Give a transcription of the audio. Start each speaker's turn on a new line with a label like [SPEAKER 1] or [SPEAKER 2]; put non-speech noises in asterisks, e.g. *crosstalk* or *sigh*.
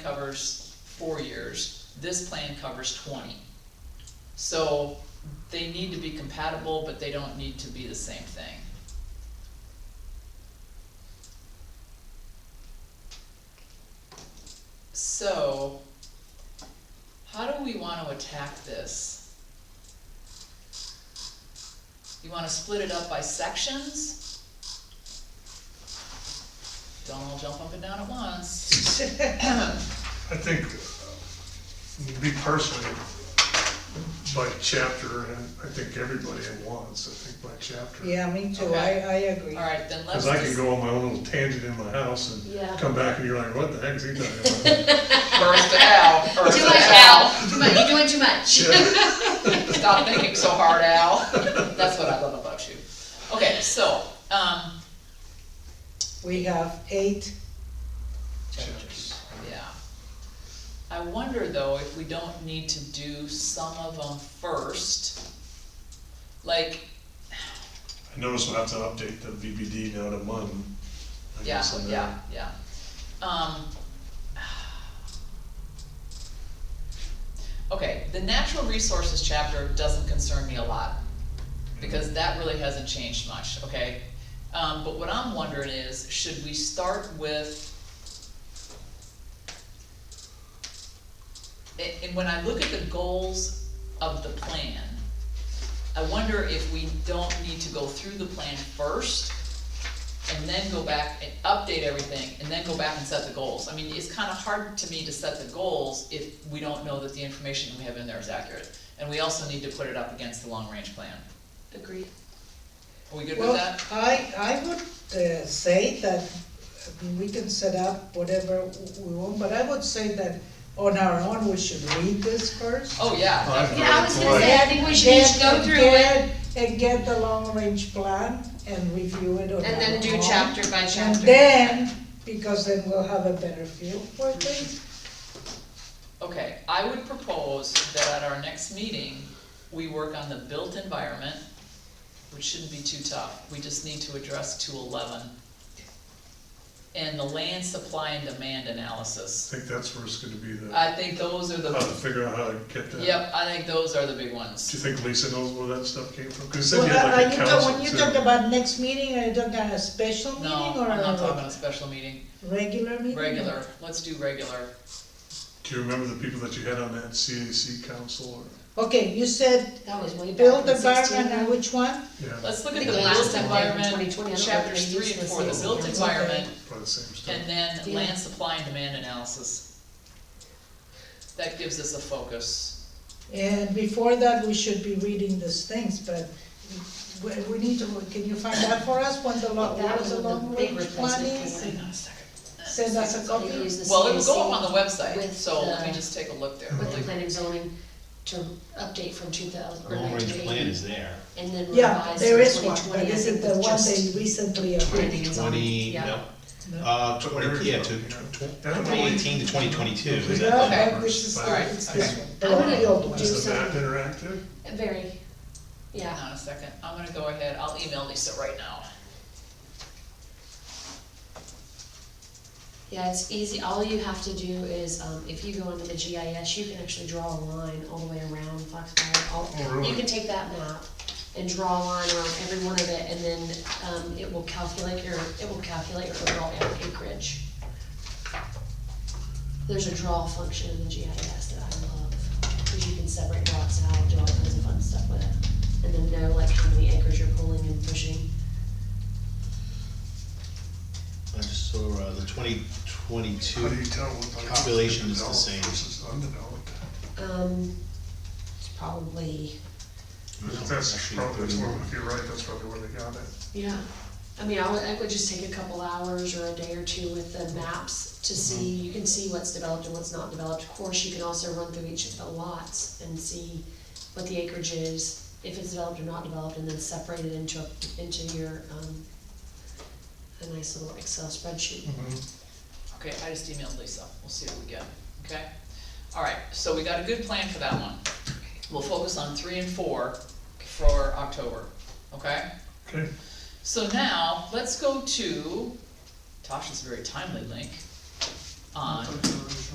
[SPEAKER 1] plan covers four years, this plan covers twenty. So they need to be compatible, but they don't need to be the same thing. So, how do we wanna attack this? You wanna split it up by sections? Don't all jump up and down at once. *clears throat*
[SPEAKER 2] I think, uh, me personally, by chapter, and I think everybody at once, I think by chapter.
[SPEAKER 3] Yeah, me too, I,
[SPEAKER 1] Okay.
[SPEAKER 3] I agree.
[SPEAKER 1] Alright, then let's
[SPEAKER 2] Cause I
[SPEAKER 1] *laughs*
[SPEAKER 2] can
[SPEAKER 1] just,
[SPEAKER 2] go on my own little tangent in my house
[SPEAKER 4] Yeah.
[SPEAKER 2] and come back and you're like, what the heck is he talking
[SPEAKER 3] *laughs*
[SPEAKER 2] about?
[SPEAKER 1] burst it out, burst
[SPEAKER 4] Too
[SPEAKER 1] it
[SPEAKER 4] much,
[SPEAKER 1] out.
[SPEAKER 4] Al, too much, you're doing too much.
[SPEAKER 2] Yeah,
[SPEAKER 1] Stop thinking so hard,
[SPEAKER 2] *laughs*
[SPEAKER 1] Al. That's what I love about you. Okay, so, um,
[SPEAKER 3] We have eight,
[SPEAKER 2] Chapters.
[SPEAKER 1] Yeah. I wonder though if we don't need to do some of them first. Like,
[SPEAKER 2] I noticed we'll have to update the BBD now to MUN. I
[SPEAKER 1] yeah,
[SPEAKER 2] guess, on that.
[SPEAKER 1] yeah, yeah. Um. *sighs* Okay, the natural resources chapter doesn't concern me a lot, because that really hasn't changed much, okay? Um, but what I'm wondering is, should we start with? And, and when I look at the goals of the plan, I wonder if we don't need to go through the plan first and then go back and update everything, and then go back and set the goals. I mean, it's kinda hard to me to set the goals if we don't know that the information we have in there is accurate. And we also need to put it up against the long-range plan.
[SPEAKER 4] Agreed.
[SPEAKER 1] Are we good with
[SPEAKER 3] well,
[SPEAKER 1] that?
[SPEAKER 3] I, I would uh, say that we can set up whatever we want, but I would say that on our own, we should read this first.
[SPEAKER 1] Oh, yeah,
[SPEAKER 2] I've
[SPEAKER 4] Yeah, I
[SPEAKER 2] heard
[SPEAKER 4] was
[SPEAKER 2] it
[SPEAKER 4] gonna say, I think we should each go
[SPEAKER 3] Get-
[SPEAKER 4] through it
[SPEAKER 3] get- And get the long-range plan and review it on our own.
[SPEAKER 4] and then do chapter by
[SPEAKER 3] And
[SPEAKER 4] chapter.
[SPEAKER 3] then, because then we'll have a better feel for things.
[SPEAKER 1] okay, I would propose that at our next meeting, we work on the built environment, which shouldn't be too tough, we just need to address two eleven. And the land supply and demand
[SPEAKER 2] I
[SPEAKER 1] analysis,
[SPEAKER 2] think that's where it's gonna be the,
[SPEAKER 3] Uh,
[SPEAKER 1] I think those are
[SPEAKER 2] how to
[SPEAKER 1] the,
[SPEAKER 2] figure out how to get that.
[SPEAKER 1] yep, I think those are the big ones.
[SPEAKER 2] Do you think Lisa knows where that stuff came from? Cause it
[SPEAKER 3] Well,
[SPEAKER 2] said you had
[SPEAKER 3] are
[SPEAKER 2] like a
[SPEAKER 3] you
[SPEAKER 2] council
[SPEAKER 3] talking, when you
[SPEAKER 2] too.
[SPEAKER 3] talk about next meeting, are you talking about a special meeting
[SPEAKER 1] No,
[SPEAKER 3] or
[SPEAKER 1] I'm not talking
[SPEAKER 3] a
[SPEAKER 1] about a special meeting,
[SPEAKER 3] regular meeting?
[SPEAKER 1] regular, let's do regular.
[SPEAKER 2] Do you remember the people that you had on that CAC council or,
[SPEAKER 3] Okay, you said
[SPEAKER 4] That was way back
[SPEAKER 3] build
[SPEAKER 4] in
[SPEAKER 3] the barn and
[SPEAKER 4] 16.
[SPEAKER 3] which one?
[SPEAKER 2] yeah,
[SPEAKER 1] Let's look
[SPEAKER 4] I
[SPEAKER 1] at
[SPEAKER 4] think
[SPEAKER 1] the
[SPEAKER 4] the last
[SPEAKER 1] built
[SPEAKER 4] time, like, in twenty
[SPEAKER 1] environment,
[SPEAKER 4] twenty, I don't know if
[SPEAKER 1] chapters
[SPEAKER 4] they
[SPEAKER 1] three
[SPEAKER 4] used
[SPEAKER 1] and
[SPEAKER 4] this
[SPEAKER 1] four, the
[SPEAKER 4] as a
[SPEAKER 1] built
[SPEAKER 4] reference.
[SPEAKER 1] environment,
[SPEAKER 2] probably the same stuff?
[SPEAKER 1] and then
[SPEAKER 4] Yeah.
[SPEAKER 1] land supply and demand analysis. That gives us a focus.
[SPEAKER 3] And before that, we should be reading these things, but we, we need to, can you find out for us when the long,
[SPEAKER 4] That
[SPEAKER 3] what
[SPEAKER 4] was
[SPEAKER 3] the
[SPEAKER 4] the
[SPEAKER 3] long
[SPEAKER 4] big
[SPEAKER 3] range
[SPEAKER 4] replacement
[SPEAKER 3] plan is?
[SPEAKER 4] plan. Hang on
[SPEAKER 1] a second.
[SPEAKER 3] Send us a
[SPEAKER 4] So they
[SPEAKER 3] copy?
[SPEAKER 4] use the
[SPEAKER 1] Well, it'll go
[SPEAKER 4] CAC
[SPEAKER 1] up on the website,
[SPEAKER 4] with
[SPEAKER 1] so let me
[SPEAKER 4] the-
[SPEAKER 1] just take a look there.
[SPEAKER 4] With the planning zoning to update from two thousand or
[SPEAKER 5] Long
[SPEAKER 4] nineteen
[SPEAKER 5] range
[SPEAKER 4] eighty.
[SPEAKER 5] plan is there.
[SPEAKER 4] And then
[SPEAKER 3] Yeah,
[SPEAKER 4] revise
[SPEAKER 3] there
[SPEAKER 4] in
[SPEAKER 3] is one,
[SPEAKER 4] twenty
[SPEAKER 3] but
[SPEAKER 4] twenty, I
[SPEAKER 3] is it
[SPEAKER 4] think
[SPEAKER 3] the
[SPEAKER 4] was
[SPEAKER 3] one
[SPEAKER 4] just.
[SPEAKER 3] they recently
[SPEAKER 4] planning
[SPEAKER 3] approved?
[SPEAKER 4] and zoning.
[SPEAKER 5] Twenty,
[SPEAKER 4] Yeah.
[SPEAKER 5] no,
[SPEAKER 3] No?
[SPEAKER 5] uh, twenty, yeah, to
[SPEAKER 2] I don't know.
[SPEAKER 5] twenty eighteen to twenty twenty-two, is
[SPEAKER 3] Yeah,
[SPEAKER 5] that?
[SPEAKER 1] Okay.
[SPEAKER 3] but this is,
[SPEAKER 2] All
[SPEAKER 1] right.
[SPEAKER 3] it's this one,
[SPEAKER 4] I'm
[SPEAKER 3] the
[SPEAKER 4] gonna
[SPEAKER 3] old one.
[SPEAKER 4] do
[SPEAKER 2] Is the map
[SPEAKER 4] some-
[SPEAKER 2] interactive?
[SPEAKER 4] Very,
[SPEAKER 1] Hang
[SPEAKER 4] yeah.
[SPEAKER 1] on a second, I'm gonna go ahead, I'll email Lisa right now.
[SPEAKER 4] Yeah, it's easy, all you have to do is, um, if you go into the GIS, you can actually draw a line all the way around Foxfire, all.
[SPEAKER 2] Oh, really?
[SPEAKER 4] You can take that map and draw a line around every one of it, and then, um, it will calculate your, it will calculate your overall acreage. There's a draw function in the GIS that I love, cause you can separate lots out, do all kinds of fun stuff with it, and then know like how many acres you're pulling and pushing.
[SPEAKER 5] I just saw, uh, the twenty
[SPEAKER 2] How do
[SPEAKER 5] twenty-two,
[SPEAKER 2] you tell what?
[SPEAKER 5] Population is the
[SPEAKER 2] developed
[SPEAKER 5] same.
[SPEAKER 2] Versus undeveloped.
[SPEAKER 4] Um, it's probably,
[SPEAKER 5] Mm-hmm.
[SPEAKER 2] That's probably, that's where- if you're right, that's probably where they got it.
[SPEAKER 4] yeah, I mean, I would, I would just take a couple hours or a day or two with the maps to see, you can see what's developed and what's not developed. Of course, you can also run through each of the lots and see what the acreage is, if it's developed or not developed, and then separate it into, a- into your, um, a nice little Excel spreadsheet.
[SPEAKER 5] Mm-hmm.
[SPEAKER 1] Okay, I just emailed Lisa, we'll see what we get, okay? All right, so we got a good plan for that one. We'll focus on three and four for October, okay?
[SPEAKER 2] Okay,
[SPEAKER 1] So now, let's go to Tasha's very timely link on